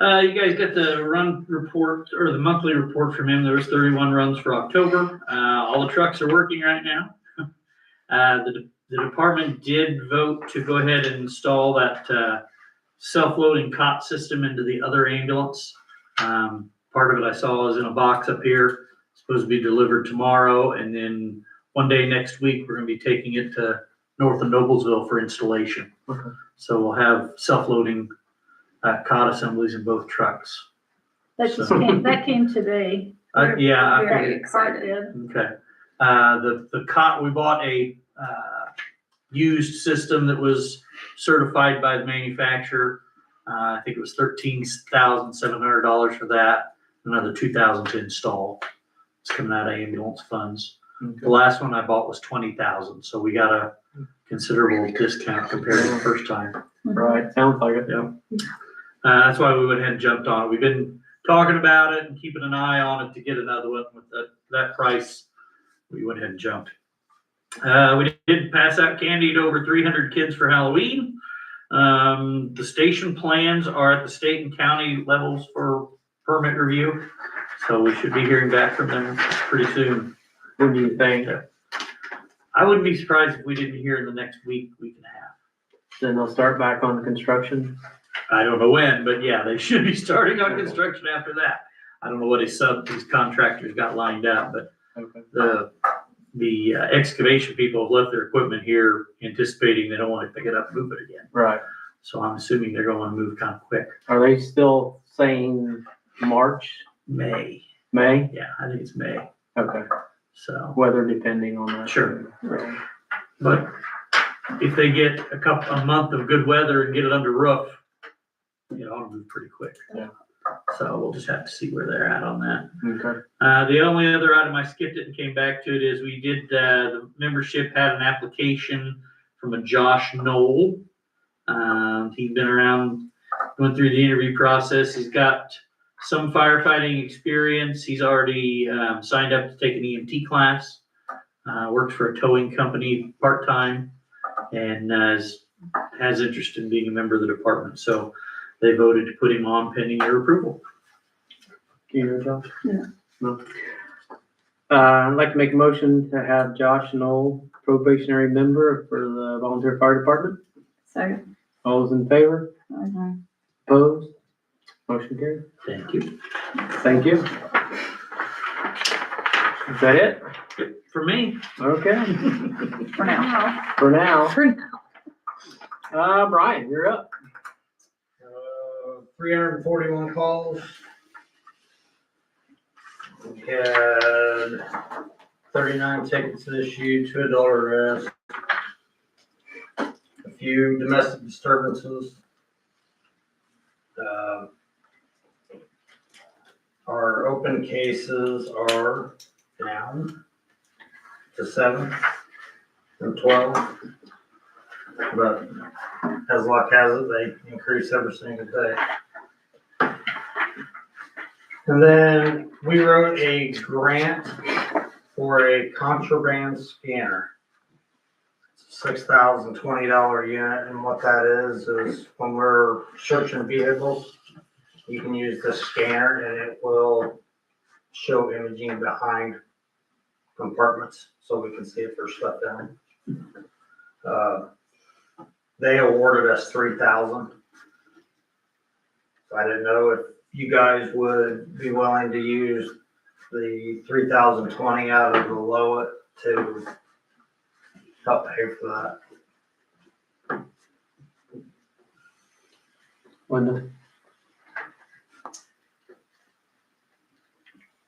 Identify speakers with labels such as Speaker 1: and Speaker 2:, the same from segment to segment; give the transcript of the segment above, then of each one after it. Speaker 1: Uh, you guys got the run report or the monthly report from him. There was thirty-one runs for October. Uh, all the trucks are working right now. Uh, the, the department did vote to go ahead and install that, uh, self-loading cot system into the other ambulance. Um, part of it I saw is in a box up here, supposed to be delivered tomorrow. And then one day next week, we're gonna be taking it to north of Noblesville for installation.
Speaker 2: Okay.
Speaker 1: So we'll have self-loading uh, cot assemblies in both trucks.
Speaker 3: That just
Speaker 1: So-
Speaker 3: came, that came today.
Speaker 1: Uh, yeah, I
Speaker 3: Where
Speaker 1: figured-
Speaker 3: Cart did.
Speaker 1: okay. Uh, the, the cot, we bought a, uh, used system that was certified by the manufacturer. Uh, I think it was thirteen thousand seven hundred dollars for that, another two thousand to install. It's coming out of ambulance funds. The last one I bought was twenty thousand, so we got a considerable discount compared to the first time.
Speaker 2: Right, sounds like it.
Speaker 1: Yeah. Uh, that's why we went ahead and jumped on it. We've been talking about it and keeping an eye on it to get another one with that, that price. We went ahead and jumped. Uh, we did pass out candy to over three hundred kids for Halloween. Um, the station plans are at the state and county levels for permit review. So we should be hearing back from them pretty soon.
Speaker 2: What do you think?
Speaker 1: I wouldn't be surprised if we didn't hear in the next week, week and a half.
Speaker 2: Then they'll start back on construction.
Speaker 1: I don't know when, but yeah, they should be starting on construction after that. I don't know what his sub, these contractors got lined up, but
Speaker 2: Okay.
Speaker 1: the, the uh, excavation people have left their equipment here anticipating they don't want to pick it up, and move it again.
Speaker 2: Right.
Speaker 1: So I'm assuming they're going to move kind of quick.
Speaker 2: Are they still saying March,
Speaker 1: May,
Speaker 2: May?
Speaker 1: yeah, I think it's May,
Speaker 2: Okay,
Speaker 1: so.
Speaker 2: weather depending on that.
Speaker 1: Sure.
Speaker 2: Right.
Speaker 1: But if they get a couple, a month of good weather and get it under roof, it ought to move pretty quick.
Speaker 2: Yeah.
Speaker 1: So we'll just have to see where they're at on that.
Speaker 2: Okay.
Speaker 1: Uh, the only other item I skipped it and came back to it is we did, uh, the membership had an application from a Josh Knoll. Um, he's been around, went through the interview process. He's got some firefighting experience. He's already, um, signed up to take an EMT class. Uh, works for a towing company part-time and, uh, is- has interest in being a member of the department. So they voted to put him on pending your approval.
Speaker 2: Do you hear Josh?
Speaker 3: Yeah.
Speaker 2: No. Uh, I'd like to make a motion to have Josh Knoll probationary member for the volunteer fire department.
Speaker 3: So.
Speaker 2: All those in favor? Opposed? Motion carried.
Speaker 1: Thank you.
Speaker 2: Thank you. Is that it?
Speaker 1: For me,
Speaker 2: Okay,
Speaker 3: For now.
Speaker 2: for now.
Speaker 3: For
Speaker 2: Uh, Brian, you're up.
Speaker 4: Uh, Three hundred and forty-one calls. We had thirty-nine tickets issued, two dollar arrest. A few domestic disturbances. Um, Our open cases are down to seven and twelve. But as luck has it, they increase every single day. And then we wrote a grant for a contraband scanner. Six thousand twenty dollar unit, and what that is, is when we're searching vehicles, you can use the scanner and it will show imaging behind compartments, so we can see if there's stuff down. Uh, they awarded us three thousand. I didn't know if you guys would be willing to use the three thousand twenty out of the Lowit to help pay for that.
Speaker 2: Linda.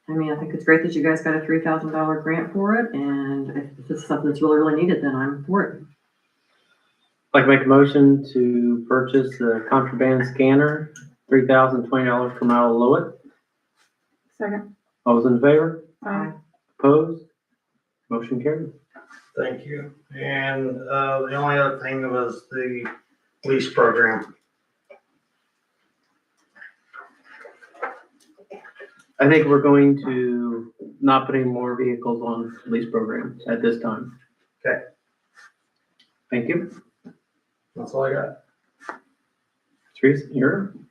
Speaker 5: I mean, I think it's great that you guys got a three thousand dollar grant for it, and if this is something that's really, really needed, then I'm for it.
Speaker 2: I'd Like to make a motion to purchase the contraband scanner, three thousand twenty dollars from Al Lewitt.
Speaker 3: Second.
Speaker 2: All those in favor?
Speaker 3: Aye.
Speaker 2: Opposed? Motion carried.
Speaker 4: Thank you. And, uh, the only other thing was the lease program.
Speaker 2: I think we're going to not put any more vehicles on lease programs at this time.
Speaker 4: Okay.
Speaker 2: Thank you.
Speaker 4: That's all I got.
Speaker 2: Teresa, you're.